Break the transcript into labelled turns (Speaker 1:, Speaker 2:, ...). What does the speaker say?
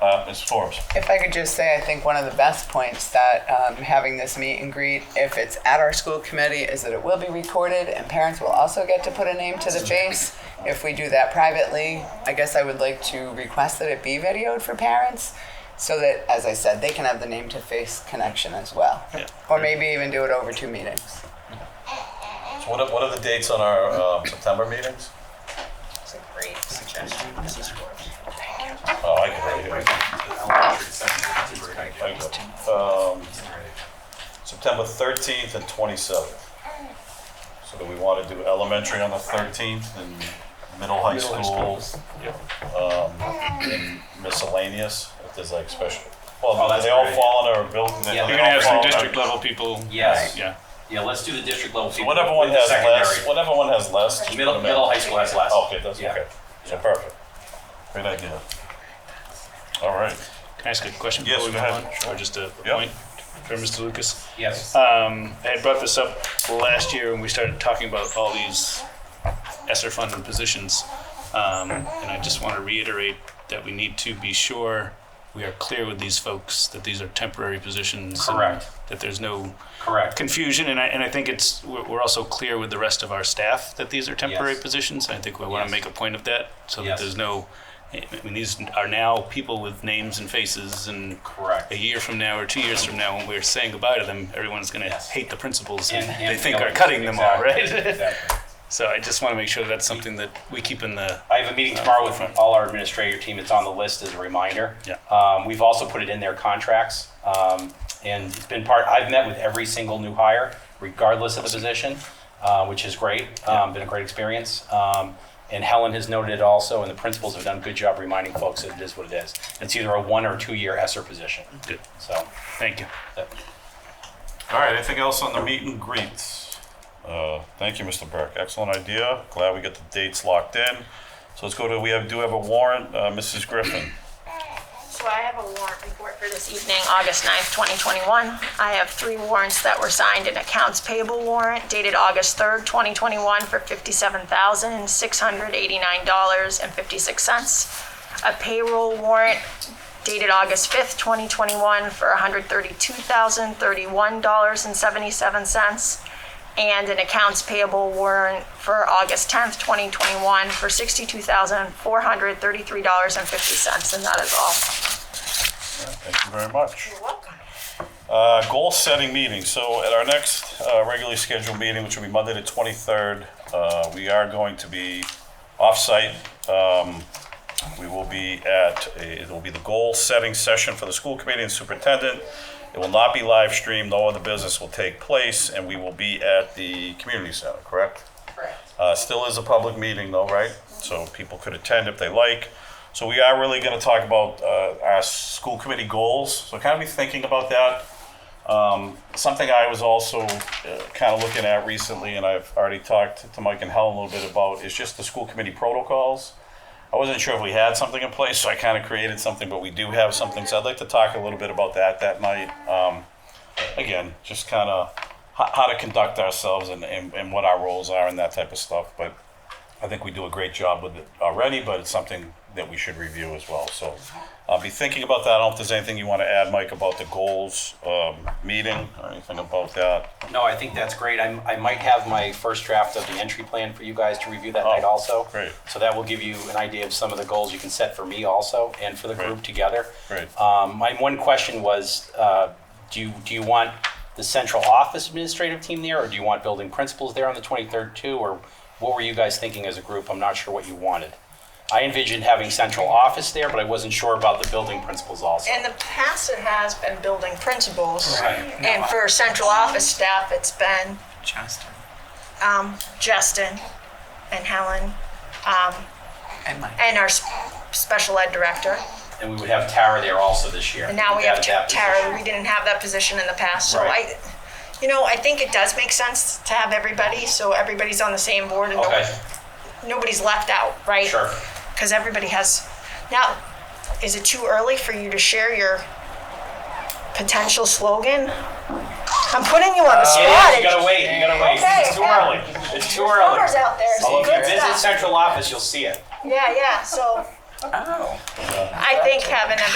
Speaker 1: uh, Ms. Forbes.
Speaker 2: If I could just say, I think one of the best points that um, having this meet and greet, if it's at our school committee, is that it will be recorded and parents will also get to put a name to the face. If we do that privately, I guess I would like to request that it be videoed for parents so that, as I said, they can have the name to face connection as well.
Speaker 1: Yeah.
Speaker 2: Or maybe even do it over two meetings.
Speaker 3: So what are, what are the dates on our uh, September meetings?
Speaker 4: That's a great suggestion, Mrs. Forbes.
Speaker 3: Oh, I can read it. Um, September 13th and 27th. So do we want to do elementary on the 13th and middle high school? um, Miscellaneous, if there's like special, well,
Speaker 5: Oh, that's
Speaker 3: they all
Speaker 5: great.
Speaker 3: fall under a building. they-
Speaker 5: Yeah.
Speaker 3: they
Speaker 5: You're
Speaker 1: You're gonna
Speaker 3: all
Speaker 1: have some
Speaker 3: fall under-
Speaker 1: district level people.
Speaker 5: Yes.
Speaker 1: Yeah.
Speaker 5: Yeah, let's do the district level.
Speaker 3: So
Speaker 5: people.
Speaker 3: whatever one
Speaker 5: Leave the
Speaker 3: has less,
Speaker 5: secondary.
Speaker 3: whatever one has less. just put
Speaker 5: Middle,
Speaker 3: them in.
Speaker 5: middle high school has less.
Speaker 3: Okay, that's
Speaker 5: Yeah.
Speaker 3: okay. So perfect. Great idea. All right.
Speaker 1: Can I ask a question
Speaker 3: Yes,
Speaker 1: before we
Speaker 3: go
Speaker 1: move
Speaker 3: ahead.
Speaker 1: on? Or just a
Speaker 3: Yep.
Speaker 1: point for Mr. Lucas?
Speaker 5: Yes.
Speaker 3: Uh,
Speaker 1: Um, I had brought this up last year when we started talking about all these ESSER funded positions. Um, and I just want to reiterate that we need to be sure we are clear with these folks that these are temporary positions. and
Speaker 5: Correct.
Speaker 1: That there's no
Speaker 5: Correct.
Speaker 1: confusion, and I, and I think it's, we're we're also clear with the rest of our staff that these are temporary
Speaker 5: Yes.
Speaker 1: positions. I think we want
Speaker 5: Yes.
Speaker 1: to make a point of that, so that
Speaker 5: Yes.
Speaker 1: there's no, I mean, these are now people with names and faces, and
Speaker 5: Correct.
Speaker 1: a year from now or two years from now, when we're saying goodbye to them, everyone's gonna
Speaker 5: Yes.
Speaker 1: hate the principals
Speaker 5: And-
Speaker 1: and
Speaker 5: and
Speaker 1: they think are
Speaker 5: feelings.
Speaker 1: cutting them all,
Speaker 5: Exactly.
Speaker 1: right?
Speaker 5: Exactly.
Speaker 1: So I just want to make sure that's something that we keep in the,
Speaker 5: I have a meeting tomorrow with all our administrator team. It's on the list as a reminder.
Speaker 1: Yeah.
Speaker 5: Um, we've also put it in their contracts. Um, and it's been part, I've met with every single new hire, regardless of the position, uh, which is great. Um, been a great experience. Um, and Helen has noted it also, and the principals have done a good job reminding folks that it is what it is. It's either a one or two year ESSER position.
Speaker 1: good,
Speaker 5: So,
Speaker 1: thank you.
Speaker 3: All right, anything else on the meet and greets? Uh, Thank you, Mr. Burke. Excellent idea. Glad we got the dates locked in. So let's go to, we have, do have a warrant, uh, Mrs. Griffin.
Speaker 6: So I have a warrant report for this evening, August 9th, 2021. I have three warrants that were signed, an accounts payable warrant dated August 3rd, 2021 for $57,689.56. A payroll warrant dated August 5th, 2021 for $132,031.77. And an accounts payable warrant for August 10th, 2021 for $62,433.50. And that is all.
Speaker 3: Thank you very much.
Speaker 6: You're welcome.
Speaker 3: Uh, Goal-setting meeting. So at our next uh, regularly scheduled meeting, which will be Monday the 23rd, uh, we are going to be off-site. Um, We will be at, it will be the goal-setting session for the school committee and superintendent. It will not be live streamed, no other business will take place, and we will be at the community center, correct? Uh, Still is a public meeting though, right? So people could attend if they like. So we are really going to talk about uh, our school committee goals. So kind of be thinking about that. Um, Something I was also kind of looking at recently, and I've already talked to Mike and Helen a little bit about, is just the school committee protocols. I wasn't sure if we had something in place, so I kind of created something, but we do have something. So I'd like to talk a little bit about that that night. Um, again, just kind of how, how to conduct ourselves and, and, and what our roles are and that type of stuff. But I think we do a great job with it already, but it's something that we should review as well. So I'll be thinking about that. I don't know if there's anything you want to add, Mike, about the goals um, meeting or anything about that.
Speaker 5: no, I think that's great. I, I might have my first draft of the entry plan for you guys to review that night also.
Speaker 3: Oh, great.
Speaker 5: So that will give you an idea of some of the goals you can set for me also and for the group
Speaker 3: Great.
Speaker 5: together.
Speaker 3: Great.
Speaker 5: Um, my one question was, uh, do you, do you want the central office administrative team there, or do you want building principals there on the 23rd too, or what were you guys thinking as a group? I'm not sure what you wanted. I envisioned having central office there, but I wasn't sure about the building principals also.
Speaker 4: In the past, it has been building principals.
Speaker 5: Right.
Speaker 4: And for central office staff, it's been
Speaker 2: Justin.
Speaker 4: um, Justin and Helen um,
Speaker 2: And Mike.
Speaker 4: and our s- special ed director.
Speaker 5: And we would have Tara there also this year.
Speaker 4: And now we have
Speaker 5: Added that
Speaker 4: Tara.
Speaker 5: position.
Speaker 4: We didn't have that position in the past, so
Speaker 5: Right.
Speaker 4: I, you know, I think it does make sense to have everybody, so everybody's on the same board and nobody-
Speaker 5: Okay,
Speaker 4: nobody's left out, right?
Speaker 5: sure.
Speaker 4: Because everybody has, now, is it too early for you to share your potential slogan? I'm putting you on the spot.
Speaker 5: Uh, Yeah, you gotta wait, you gotta wait.
Speaker 4: Okay,
Speaker 5: It's too
Speaker 4: yeah.
Speaker 5: early. It's too
Speaker 4: There's
Speaker 5: early.
Speaker 4: numbers out there, so
Speaker 5: Although if
Speaker 4: good
Speaker 5: you visit
Speaker 4: stuff.
Speaker 5: central office, you'll see it.
Speaker 4: Yeah, yeah, so
Speaker 2: Oh.
Speaker 4: I think having a